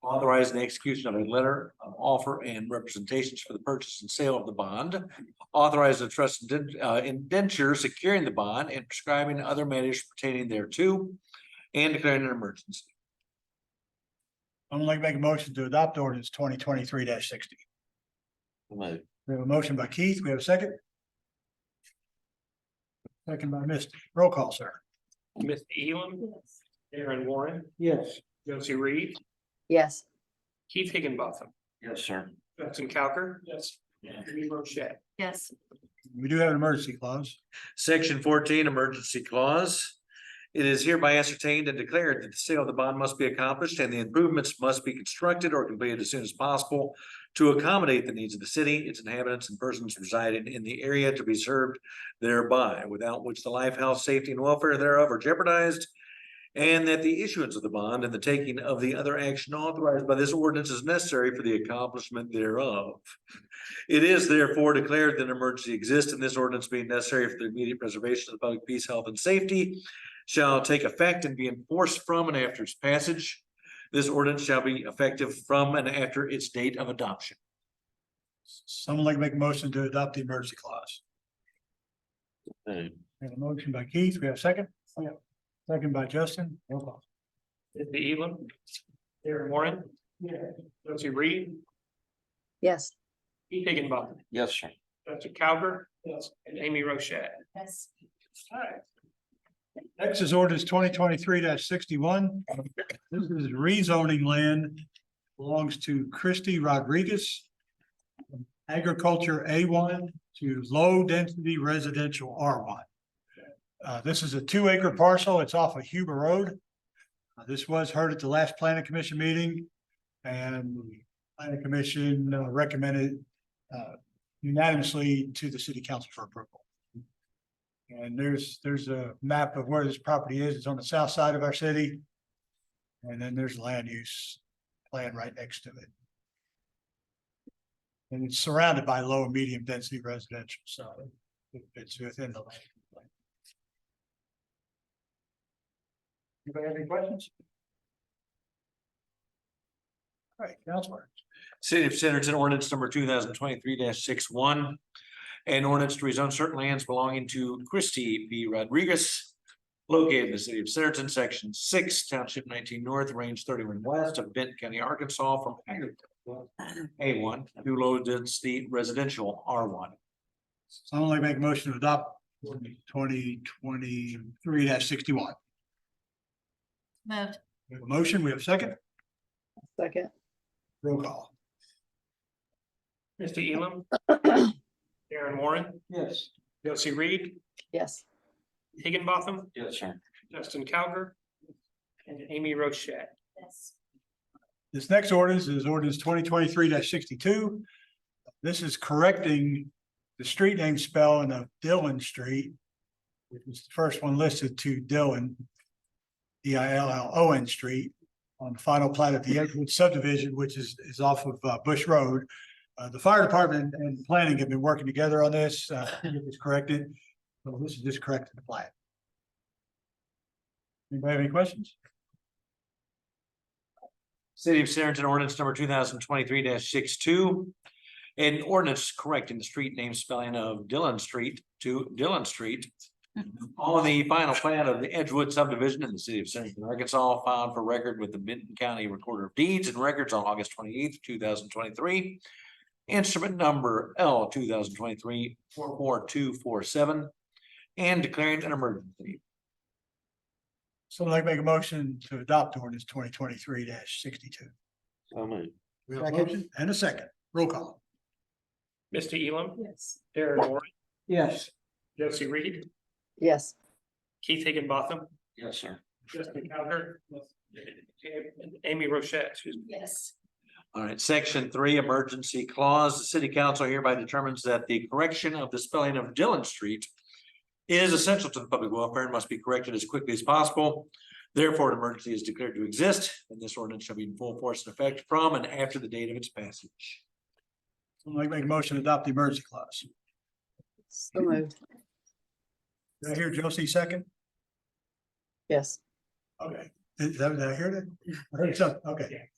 Authorizing the execution of a letter of offer and representations for the purchase and sale of the bond. Authorize the trust indent- uh, indenture securing the bond and prescribing other matters pertaining thereto. And declaring an emergency. I'm gonna make a motion to adopt ordinance twenty twenty-three sixty. We have a motion by Keith. We have a second. Second by Misty. Roll call, sir. Miss Elam, Yes. Aaron Warren, Yes. Josie Reed, Yes. Keith Higginbotham, Yes, sir. Justin Cowker. Yes. Jimmy Rochette. Yes. We do have an emergency clause. Section fourteen, emergency clause. It is hereby ascertained and declared that the sale of the bond must be accomplished and the improvements must be constructed or completed as soon as possible to accommodate the needs of the city, its inhabitants and persons residing in the area to be served thereby, without which the life, health, safety and welfare thereof are jeopardized. And that the issuance of the bond and the taking of the other action authorized by this ordinance is necessary for the accomplishment thereof. It is therefore declared that an emergency exists and this ordinance being necessary for the immediate preservation of the public peace, health and safety. Shall take effect and be enforced from and after its passage. This ordinance shall be effective from and after its date of adoption. Someone like to make a motion to adopt the emergency clause. We have a motion by Keith. We have a second. Second by Justin. Roll call. Miss Elam, Aaron Warren. Josie Reed, Yes. Keith Higginbotham, Yes, sir. Justin Cowker. Yes. And Amy Rochette. Yes. All right. Next is ordinance twenty twenty-three sixty-one. This is rezoning land belongs to Christy Rodriguez. Agriculture A one to low density residential R one. Uh, this is a two acre parcel. It's off of Huber Road. Uh, This was heard at the last planning commission meeting. And the planning commission uh, recommended uh, unanimously to the city council for approval. And there's, there's a map of where this property is. It's on the south side of our city. And then there's land use plan right next to it. And it's surrounded by low and medium density residential, so it- it's within the land. Anybody have any questions? All right, Counselor. City of Centerton ordinance number two thousand twenty-three 61 An ordinance to rezone certain lands belonging to Christie B. Rodriguez. Located in the city of Centerton, section six, township nineteen north, range thirty-one west of Benton County, Arkansas, from agricultural A one to low density residential R one. So I'm only make a motion to adopt twenty twenty-three sixty-one. Moved. We have a motion, we have a second, Second. roll call. Mr. Elam, Aaron Warren. Yes. Josie Reed, Yes. Higginbotham, Yes, sir. Justin Cowker. And Amy Rochette. Yes. This next ordinance is ordinance twenty twenty-three sixty-two. This is correcting the street name spelling of Dillon Street. Which was the first one listed to Dillon. D I L L O N Street on the final plat of the Edgewood subdivision, which is, is off of uh, Bush Road. Uh, the fire department and planning have been working together on this, uh, it's corrected. So this is just correcting the plat. Anybody have any questions? City of Centerton ordinance number two thousand twenty-three 62 An ordinance correcting the street name spelling of Dillon Street to Dillon Street. On the final plan of the Edgewood subdivision in the city of Centerton, Arkansas, filed for record with the Benton County Recorder of Deeds and Records on August twenty-eighth, two thousand twenty-three. Instrument number L two thousand twenty-three four four two four seven. And declaring an emergency. Someone like to make a motion to adopt ordinance twenty twenty-three sixty-two. We have a motion and a second. Roll call. Mr. Elam, Yes. Aaron Warren, Yes. Josie Reed, Yes. Keith Higginbotham, Yes, sir. Justin Cowker. and Amy Rochette, excuse me. Yes. All right, section three, emergency clause, the city council hereby determines that the correction of the spelling of Dillon Street. Is essential to the public welfare and must be corrected as quickly as possible. Therefore, an emergency is declared to exist, and this ordinance shall be in full force and effect from and after the date of its passage. Someone like to make a motion to adopt the emergency clause. So moved. Did I hear Josie second? Yes. Okay. Did, did I hear that? I heard something. Okay.